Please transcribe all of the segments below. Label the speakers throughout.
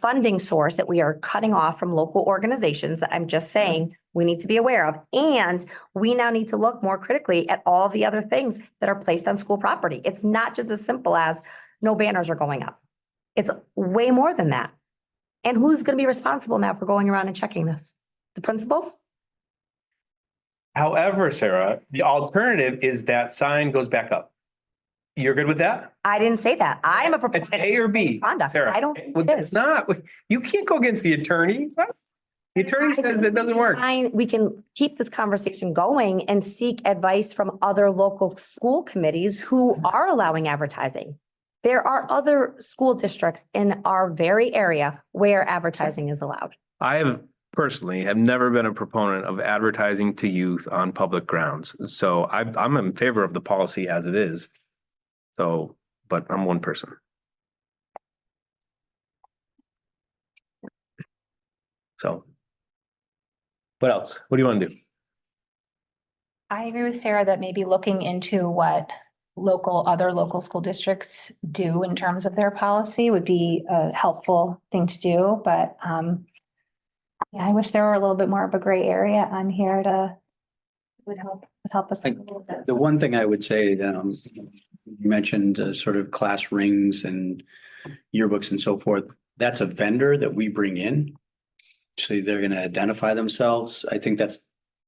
Speaker 1: funding source that we are cutting off from local organizations that I'm just saying we need to be aware of. And we now need to look more critically at all the other things that are placed on school property. It's not just as simple as no banners are going up. It's way more than that. And who's going to be responsible now for going around and checking this? The principals?
Speaker 2: However, Sarah, the alternative is that sign goes back up. You're good with that?
Speaker 1: I didn't say that. I am a
Speaker 2: It's
Speaker 1: proponent.
Speaker 2: A or B,
Speaker 1: Conduct.
Speaker 2: Sarah.
Speaker 1: I don't
Speaker 2: Well,
Speaker 1: think it
Speaker 2: It's
Speaker 1: is.
Speaker 2: not, you can't go against the attorney. The attorney says it doesn't work.
Speaker 1: I- we can keep this conversation going and seek advice from other local school committees who are allowing advertising. There are other school districts in our very area where advertising is allowed.
Speaker 2: I have personally have never been a proponent of advertising to youth on public grounds. So I, I'm in favor of the policy as it is. So, but I'm one person. So. What else? What do you want to do?
Speaker 3: I agree with Sarah that maybe looking into what local, other local school districts do in terms of their policy would be a helpful thing to do, but um. Yeah, I wish there were a little bit more of a gray area on here to would help, would help us. a
Speaker 4: Like,
Speaker 3: little bit.
Speaker 4: The one thing I would say, um, you mentioned uh, sort of class rings and yearbooks and so forth. That's a vendor that we bring in. So they're gonna identify themselves. I think that's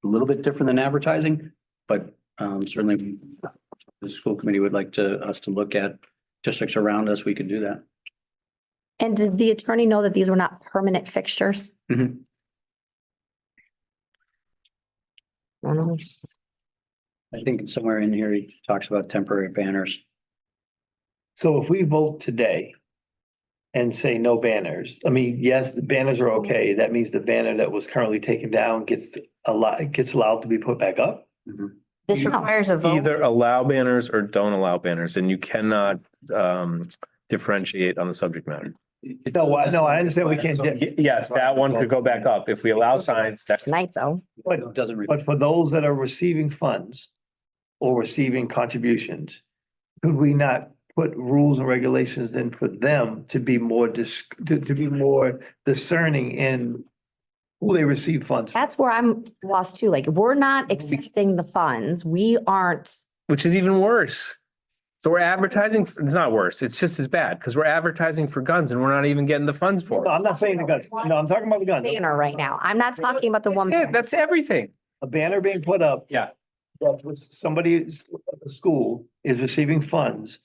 Speaker 4: a little bit different than advertising, but um, certainly the school committee would like to, us to look at districts around us. We could do that.
Speaker 1: And did the attorney know that these were not permanent fixtures?
Speaker 2: Mm-hmm.
Speaker 4: Mhm.
Speaker 1: I don't know.
Speaker 4: I think somewhere in here, he talks about temporary banners.
Speaker 5: So if we vote today and say no banners, I mean, yes, the banners are okay. That means the banner that was currently taken down gets a lot, gets allowed to be put back up.
Speaker 6: This
Speaker 1: No.
Speaker 6: requires a vote.
Speaker 2: Either allow banners or don't allow banners and you cannot um differentiate on the subject matter.
Speaker 5: No, I- no, I understand we can't
Speaker 4: So-
Speaker 5: get-
Speaker 2: Y- Yes, that one could go back up. If we allow signs, that's.
Speaker 1: Tonight, though.
Speaker 4: It Doesn't. re-
Speaker 5: But for those that are receiving funds or receiving contributions, could we not put rules and regulations in for them to be more dis, to, to be more discerning in who they receive funds? from?
Speaker 1: That's where I'm lost too. Like, we're not accepting the funds. We aren't
Speaker 2: which is even worse. So we're advertising, it's not worse, it's just as bad, because we're advertising for guns and we're not even getting the funds for
Speaker 5: No,
Speaker 2: it.
Speaker 5: I'm not saying the guns. No, I'm talking about the guns.
Speaker 1: banner right now. I'm not talking about the
Speaker 2: That's
Speaker 1: one.
Speaker 2: it, that's everything.
Speaker 5: a banner being put up.
Speaker 2: Yeah.
Speaker 5: That was somebody at the school is receiving funds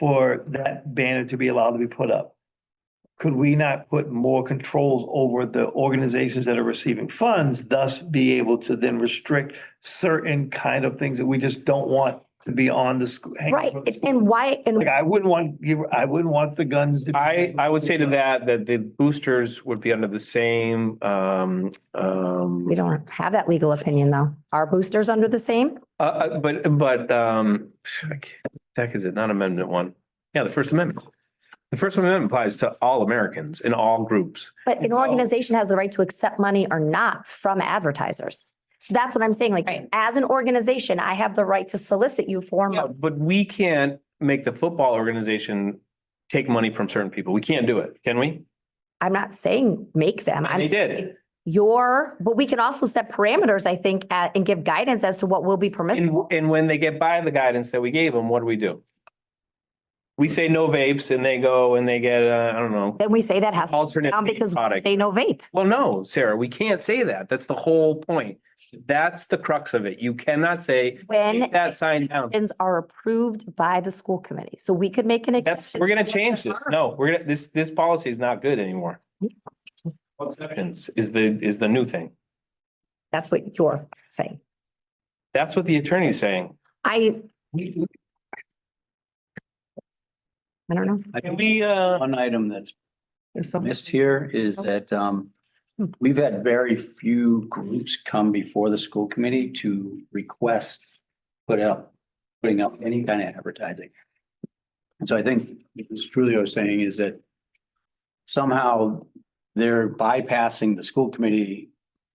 Speaker 5: for that banner to be allowed to be put up. Could we not put more controls over the organizations that are receiving funds, thus be able to then restrict certain kind of things that we just don't want to be on the school?
Speaker 1: Right. And why, and
Speaker 5: Like, I wouldn't want, you- I wouldn't want the guns. to be-
Speaker 2: I, I would say to that, that the boosters would be under the same, um, um,
Speaker 1: we don't have that legal opinion though. Are boosters under the same?
Speaker 2: uh, uh, but, but, um, I can't- the heck is it, not amendment one? Yeah, the First Amendment. The First Amendment applies to all Americans in all groups.
Speaker 1: But an
Speaker 2: It's all-
Speaker 1: organization has the right to accept money or not from advertisers. So that's what I'm saying. Like,
Speaker 3: Right.
Speaker 1: as an organization, I have the right to solicit you for
Speaker 2: Yeah,
Speaker 1: money.
Speaker 2: But we can't make the football organization take money from certain people. We can't do it, can we?
Speaker 1: I'm not saying make them.
Speaker 2: And
Speaker 1: I'm
Speaker 2: they
Speaker 1: saying
Speaker 2: did.
Speaker 1: Your, but we can also set parameters, I think, at- and give guidance as to what will be
Speaker 2: And,
Speaker 1: permissible.
Speaker 2: and when they get by the guidance that we gave them, what do we do? We say no vapes and they go and they get, uh, I don't know,
Speaker 1: Then we say that has to be
Speaker 2: alternate
Speaker 1: down because
Speaker 2: vape
Speaker 1: we
Speaker 2: product.
Speaker 1: say no vape.
Speaker 2: Well, no, Sarah, we can't say that. That's the whole point. That's the crux of it. You cannot say,
Speaker 1: When
Speaker 2: take that sign down.
Speaker 1: actions are approved by the school committee. So we could make an.
Speaker 2: That's,
Speaker 1: exception.
Speaker 2: we're gonna change this. No, we're gonna, this, this policy is not good anymore. Exceptions is the, is the new thing.
Speaker 1: That's what you're saying.
Speaker 2: That's what the attorney's saying.
Speaker 1: I, I don't know.
Speaker 4: I
Speaker 2: Can
Speaker 4: think
Speaker 2: we, uh,
Speaker 4: One item that's
Speaker 1: There's some-
Speaker 4: missed here is that um, we've had very few groups come before the school committee to request put up, putting up any kind of advertising. And so I think what Trulio is saying is that somehow they're bypassing the school committee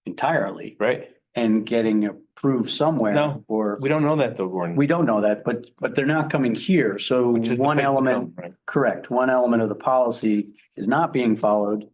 Speaker 4: entirely
Speaker 2: right?
Speaker 4: and getting approved somewhere.
Speaker 2: No.
Speaker 4: Or,
Speaker 2: We don't know that though, Gordon.
Speaker 4: we don't know that, but, but they're not coming here. So
Speaker 2: Which is the
Speaker 4: one
Speaker 2: big problem,
Speaker 4: element
Speaker 2: right?
Speaker 4: Correct. One element of the policy is not being followed